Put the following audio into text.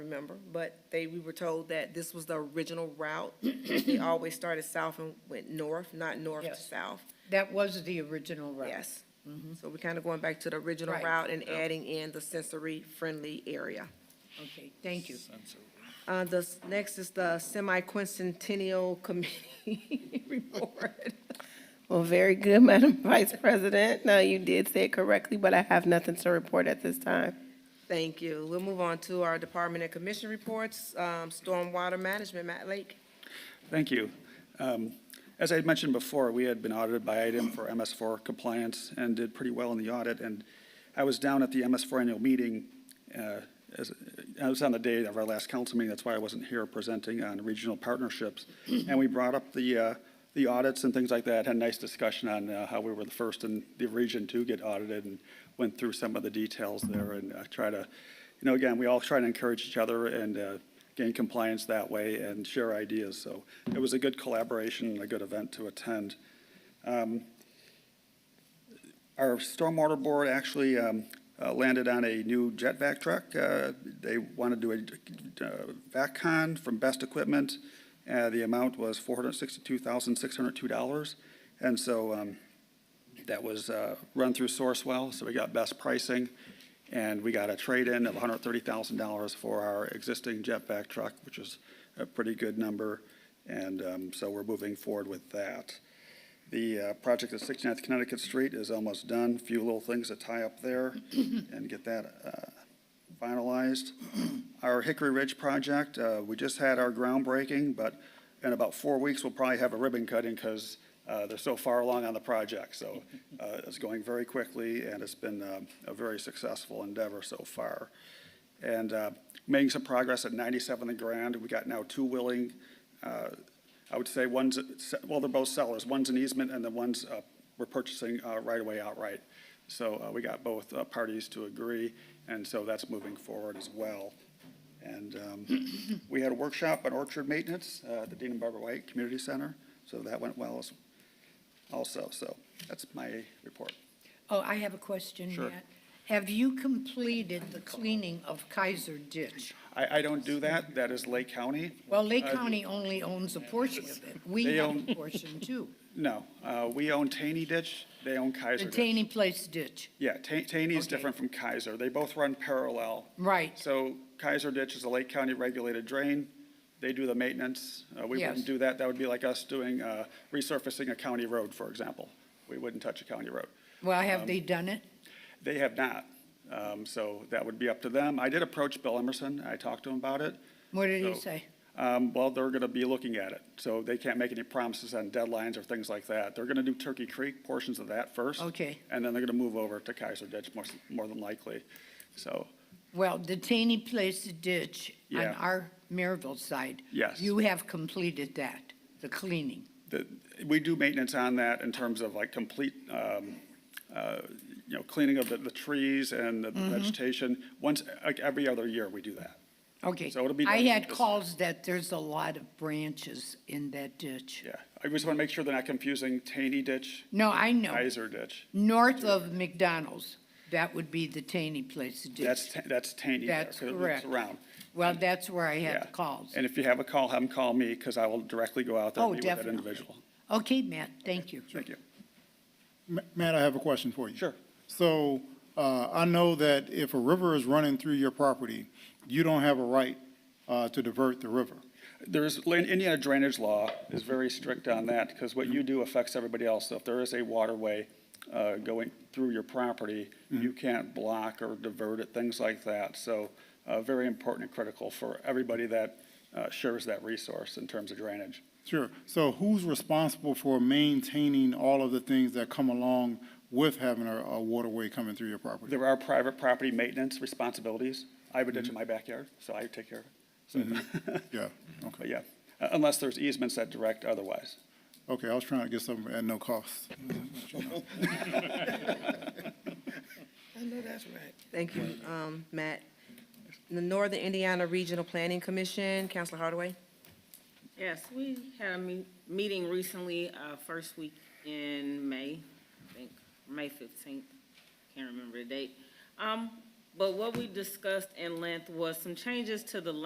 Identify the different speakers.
Speaker 1: remember, but they, we were told that this was the original route. We always started south and went north, not north to
Speaker 2: Yes.
Speaker 1: south.
Speaker 2: That was the original route.
Speaker 1: Yes. So we're kind of going back to the original
Speaker 2: Right.
Speaker 1: route and adding in the sensory-friendly area.
Speaker 2: Okay, thank you.
Speaker 1: Uh, the, s- next is the semi-quincentennial committee report.
Speaker 3: Well, very good, Madam Vice President. Now, you did say it correctly, but I have nothing to report at this time.
Speaker 1: Thank you. We'll move on to our department and commission reports, um, stormwater management, Matt Lake.
Speaker 4: Thank you. Um, As I had mentioned before, we had been audited by item for MS4 compliance and did pretty well in the audit. And I was down at the MS4 annual meeting, uh, as- I was on the day of our last council meeting, that's why I wasn't here presenting on regional partnerships. And we brought up the, uh, the audits and things like that, had a nice discussion on uh, how we were the first in the region to get audited and went through some of the details there and uh, try to, you know, again, we all try to encourage each other and uh, gain compliance that way and share ideas. So it was a good collaboration and a good event to attend. Um, Our stormwater board actually um, uh, landed on a new jet vac truck. Uh, They want to do a uh, vac con from Best Equipment. Uh, The amount was $462,602. And so um, that was uh, run through Sourcewell, so we got best pricing. And we got a trade-in of $130,000 for our existing jetback truck, which is a pretty good number. And um, so we're moving forward with that. The uh, project at 69th Connecticut Street is almost done, few little things to tie up there and get that uh, finalized. Our Hickory Ridge project, uh, we just had our groundbreaking, but in about four weeks, we'll probably have a ribbon cutting because they're so far along on the project. So uh, it's going very quickly, and it's been um, a very successful endeavor so far. And uh, making some progress at 97th and Grand, we got now two willing, uh, I would say one's, well, they're both sellers. One's an easement, and the one's, uh, we're purchasing uh, right away outright. So uh, we got both uh, parties to agree, and so that's moving forward as well. And um, we had a workshop on orchard maintenance uh, at the Dean and Barbara White Community Center, so that went well as- also. So that's my report.
Speaker 2: Oh, I have a question,
Speaker 4: Sure.
Speaker 2: Matt. Have you completed the cleaning of Kaiser Ditch?
Speaker 4: I, I don't do that, that is Lake County.
Speaker 2: Well, Lake
Speaker 4: Uh,
Speaker 2: County only owns a portion of it. We
Speaker 4: They
Speaker 2: have
Speaker 4: own-
Speaker 2: a portion too.
Speaker 4: No, uh, we own Taney Ditch, they own
Speaker 2: The
Speaker 4: Kaiser Ditch.
Speaker 2: Taney Place Ditch.
Speaker 4: Yeah, Ta- Taney is
Speaker 2: Okay.
Speaker 4: different from Kaiser, they both run parallel.
Speaker 2: Right.
Speaker 4: So Kaiser Ditch is a Lake County regulated drain, they do the maintenance. Uh, We
Speaker 2: Yes.
Speaker 4: wouldn't do that, that would be like us doing, uh, resurfacing a county road, for example. We wouldn't touch a county road.
Speaker 2: Well,
Speaker 4: Um,
Speaker 2: have they done it?
Speaker 4: They have not. Um, So that would be up to them. I did approach Bill Emerson. I talked to him about it.
Speaker 2: What did he
Speaker 4: So,
Speaker 2: say?
Speaker 4: Um, Well, they're going to be looking at it. So they can't make any promises on deadlines or things like that. They're going to do Turkey Creek, portions of that first.
Speaker 2: Okay.
Speaker 4: And then they're going to move over to Kaiser Ditch more, more than likely. So,
Speaker 2: Well, the Taney Place Ditch on
Speaker 4: Yeah.
Speaker 2: our Maryville side.
Speaker 4: Yes.
Speaker 2: You have completed that, the cleaning.
Speaker 4: the- we do maintenance on that in terms of like complete, um, uh, you know, cleaning of the, the trees and
Speaker 2: Mm-hmm.
Speaker 4: the vegetation. Once, like every other year, we do that.
Speaker 2: Okay.
Speaker 4: So it'll be
Speaker 2: I
Speaker 4: done
Speaker 2: had
Speaker 4: this-
Speaker 2: calls that there's a lot of branches in that ditch.
Speaker 4: Yeah. I just want to make sure they're not confusing Taney Ditch,
Speaker 2: No, I know.
Speaker 4: Kaiser Ditch.
Speaker 2: North of McDonald's, that would be the Taney Place ditch.
Speaker 4: That's, ta- that's Taney. there,
Speaker 2: That's
Speaker 4: 'cause it loops
Speaker 2: correct.
Speaker 4: Around.
Speaker 2: Well, that's where I
Speaker 4: Yeah.
Speaker 2: had the calls.
Speaker 4: And if you have a call, have them call me because I will directly go out there and
Speaker 2: Oh,
Speaker 4: meet with that
Speaker 2: definitely.
Speaker 4: individual.
Speaker 2: Okay, Matt, thank you.
Speaker 4: Thank you.
Speaker 5: Ma- Matt, I have a question for you.
Speaker 4: Sure.
Speaker 5: So uh, I know that if a river is running through your property, you don't have a right uh, to divert the river.
Speaker 4: There's, land- Indiana drainage law is very strict on that because what you do affects everybody else. So if there is a waterway uh, going through your property, you can't block or divert it, things like that. So uh, very important and critical for everybody that uh, shares that resource in terms of drainage.
Speaker 5: Sure. So who's responsible for maintaining all of the things that come along with having a a waterway coming through your property?
Speaker 4: There are private property maintenance responsibilities. I have a ditch in my backyard, so I take care of it. So,
Speaker 5: Yeah,
Speaker 4: but
Speaker 5: okay.
Speaker 4: yeah, uh, unless there's easements that direct otherwise.
Speaker 5: Okay, I was trying to get something at no cost.
Speaker 3: I know that's right.
Speaker 1: Thank you, um, Matt. The Northern Indiana Regional Planning Commission, Counselor Hardaway.
Speaker 6: Yes, we had a me- meeting recently, uh, first week in May, I think, May fifteenth, can't remember the date. Um, but what we discussed in length was some changes to the